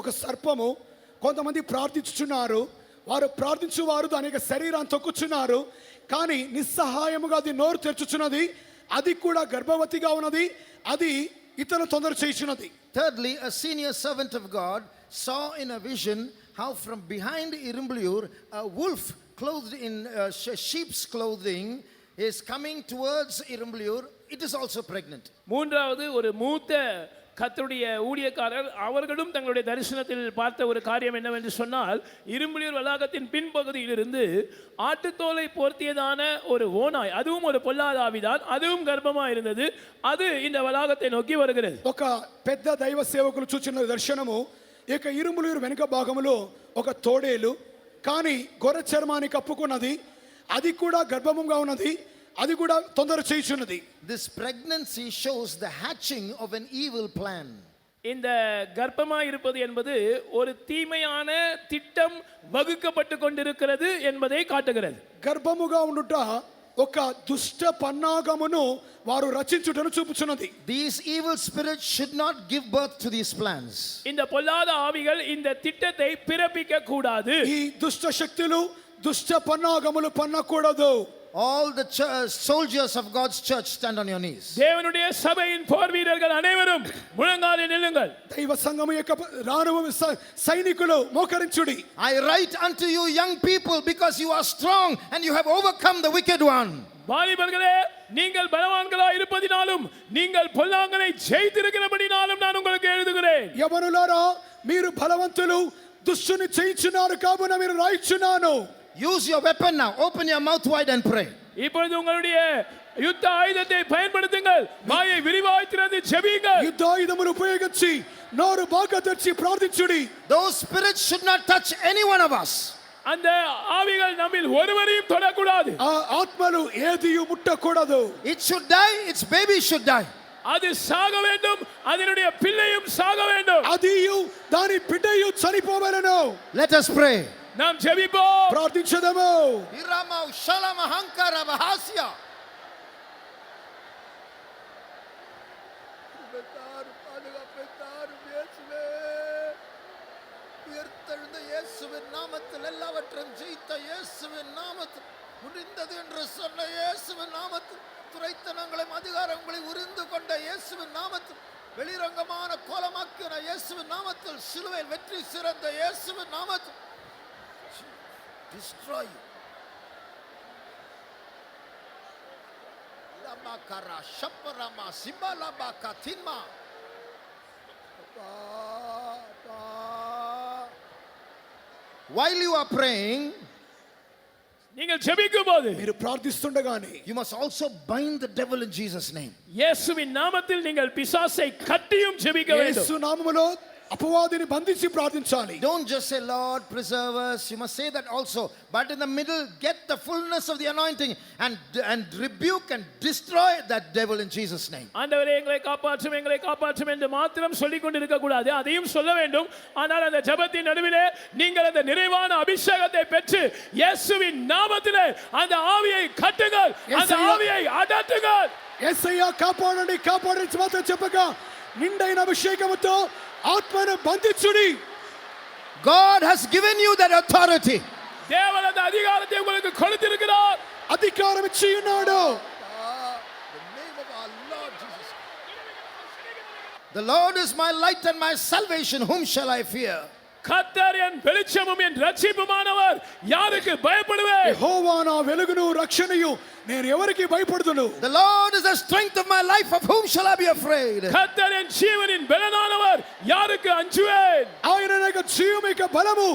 ఒక సర్పము కొంతమంది ప్రార్థించుచున్నారు వారు ప్రార్థించువారు దాని యొక్క శరీరాన్ని తొక్కుచున్నారు కానీ నిస్సహాయముగా అది నోరు తెరుచుచున్నది అది కూడా గర్భవతిగా ఉన్నది అది ఇతరులు తొందర చేయుచున్నది Thirdly, a senior servant of God saw in a vision how from behind Irumbliur a wolf clothed in uh, she- sheep's clothing is coming towards Irumbliur. It is also pregnant. மூன்றாவது ஒரு மூத்த கர்த்தருடைய ஊழியக்காரர் அவர்களும் தங்களுடைய தரிசனத்தில் பார்த்த ஒரு காரியம் என்னவென்று சொன்னால் இரும்புலியூர் வளாகத்தின் பின்பகுதியிலிருந்து ஆட்டுத்தோலை போர்த்தியதான ஒரு ஓனாய் அதுவும் ஒரு பொல்லாத ஆவிதான் அதுவும் கர்ப்பமாக இருந்தது அது இந்த வளாகத்தை நோக்கி வருகிறது ఒక పెద్ద దైవ సేవకులు చూచిన దర్శనము ఈ యొక్క ఇరుములూరు వెనుక భాగములో ఒక తోడేలు కానీ గొర్రె చర్మాన్ని కప్పుకున్నది అది కూడా గర్భముగా ఉన్నది అది కూడా తొందర చేయుచున్నది This pregnancy shows the hatching of an evil plan. இந்த கர்ப்பமாக இருப்பது என்பது ஒரு தீமையான திட்டம் வகுக்கப்பட்டு கொண்டிருக்கிறது என்பதை காட்டுகிறது గర్భముగా ఉండుట ఒక దుష్ట పన్నాగమును వారు రచించుటను చూపుచున్నది These evil spirits should not give birth to these plans. இந்த பொல்லாத ஆவிகள் இந்த திட்டத்தை பிறப்பிக்க கூடாது ఈ దుష్ట శక్తులు దుష్ట పన్నాగములు పన్నకూడదు All the chu- soldiers of God's church stand on your knees. தேவனுடைய சபையின் போர் வீரர்கள் அனைவரும் முழங்காலில் நில்லுங்கள் దైవ సంఘము యొక్క రాను స- సైనికులు మోకరించుడి I write unto you, young people, because you are strong and you have overcome the wicked one. வாலிபர்களே நீங்கள் பலவான்களா இருப்பதினாலும் நீங்கள் பொல்லாங்கனை ஜெயித்திருக்கிறபடினாலும் நான் உங்களுக்கு எழுதுகிறேன் యవనులారా మీరు బలవంతులు దుష్టుని చేయించున్నారు కావున మీరు రాయిచున్నాను Use your weapon now. Open your mouth wide and pray. இப்பொழுது உங்களுடைய யுத்த ஆயுதத்தை பயன்படுத்துங்கள் வாயை விரிவாய் திறந்து ஜெபியுங்கள் యుద్ధాయుధములు ఉపయోగించి నోరు బాగా తెరిచి ప్రార్థించుడి Those spirits should not touch any one of us. அந்த ஆவிகள் நம்மில் ஒருவரையும் தொடக்கூடாது ఆ ఆత్మలు ఏదియు ముట్టకూడదు It should die, its baby should die. அது சாக வேண்டும் அதனுடைய பிள்ளையும் சாக வேண்டும் అదియు దాని బిడ్డయు చనిపోవలను Let us pray. நாம் ஜெபிப்போம் ప్రార్థించదము Iramau shalamahankara bahasya. உயிர்த்தெழுந்த இயேசுவின் நாமத்தில் எல்லாவற்றையும் ஜெயித்த இயேசுவின் நாமத்தில் முடிந்தது என்று சொன்ன இயேசுவின் நாமத்தில் துரைத்தனங்களையும் அதிகாரங்களை உறிந்து கொண்ட இயேசுவின் நாமத்தில் வெளிரங்கமான கோலமாக்கின இயேசுவின் நாமத்தில் சிலுவையில் வெற்றி சிறந்த இயேசுவின் நாமத்தில் destroy you. Lamakara shaparama simbalaba katinma. While you are praying, நீங்கள் ஜெபிக்கும் போது మీరు ప్రార్థిస్తుండగానే you must also bind the devil in Jesus' name. இயேசுவின் நாமத்தில் நீங்கள் பிசாசை கட்டியும் ஜெபிக்க வேண்டும் యేసు నామములో అపవాదిని బంధించి ప్రార్థించాలి Don't just say, Lord, preserve us. You must say that also. But in the middle, get the fullness of the anointing and, and rebuke and destroy that devil in Jesus' name. ஆண்டவரே எங்களை காப்பாற்றும் எங்களை காப்பாற்றும் என்று மாத்திரம் சொல்லிக் கொண்டிருக்க கூடாது அதையும் சொல்ல வேண்டும் ஆனால் அந்த ஜெபத்தின் நடுவிலே நீங்கள் அந்த நிறைவான அபிஷேகத்தை பெற்று இயேசுவின் நாமத்திலே அந்த ஆவியை கட்டுங்கள் அந்த இயேசுவின் ஆவியை அடட்டுங்கள் ఏసయ్య కాపాడండి కాపాడని మాత్రం చెప్పగా నిండైన అభిషేకముతో ఆత్మను బంధించుడి God has given you that authority. தேவன் அந்த அதிகாரத்தை உங்களுக்கு கொடுத்திருக்கிறார் అధికారం ఇచ్చి ఉన్నాడు The Lord is my light and my salvation. Whom shall I fear? கர்த்தர் என் வெளிச்சமும் என் ரட்சிப்புமானவர் யாருக்கு பயப்படுவேன் యెహోవా నా వెలుగును రక్షణయు నేను ఎవరికి భయపడుతును The Lord is the strength of my life. Of whom shall I be afraid? கர்த்தர் என் ஜீவனின் பலனானவர் யாருக்கு அஞ்சுவேன் ఆయన యొక్క జీవం యొక్క బలము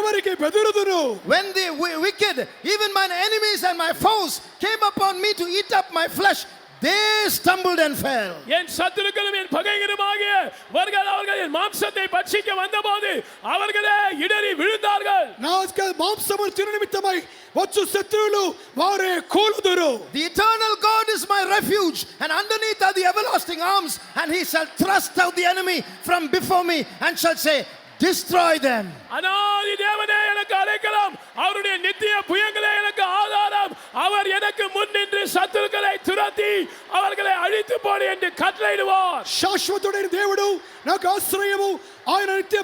ఎవరికి బెదురుదును When the wi- wicked, even mine enemies and my foes, came upon me to eat up my flesh, they stumbled and fell. என் சத்துருக்களும் என் பகைகளுமாகிய அவர்கள் அவர்கள் என் மாம்சத்தை பட்சிக்க வந்தபோது அவர்களே இடறி விழுந்தார்கள் నా మాంసము తిన నిమిత్తమై వచ్చు శత్రువులు వారే కూలుదురు The eternal God is my refuge, and underneath are the everlasting arms, and he shall thrust out the enemy from before me and shall say, Destroy them. அனாதி தேவனே எனக்கு அழைக்கலாம் அவருடைய நித்திய புயங்களே எனக்கு ஆதாரம் அவர் எனக்கு முன் நின்று சத்துருக்களை துரத்தி அவர்களை அழித்து போடு என்று கட்டளையிடுவார் శాశ్వతుడైన దేవుడు నాకు ఆశ్రయము ఆయన నిత్య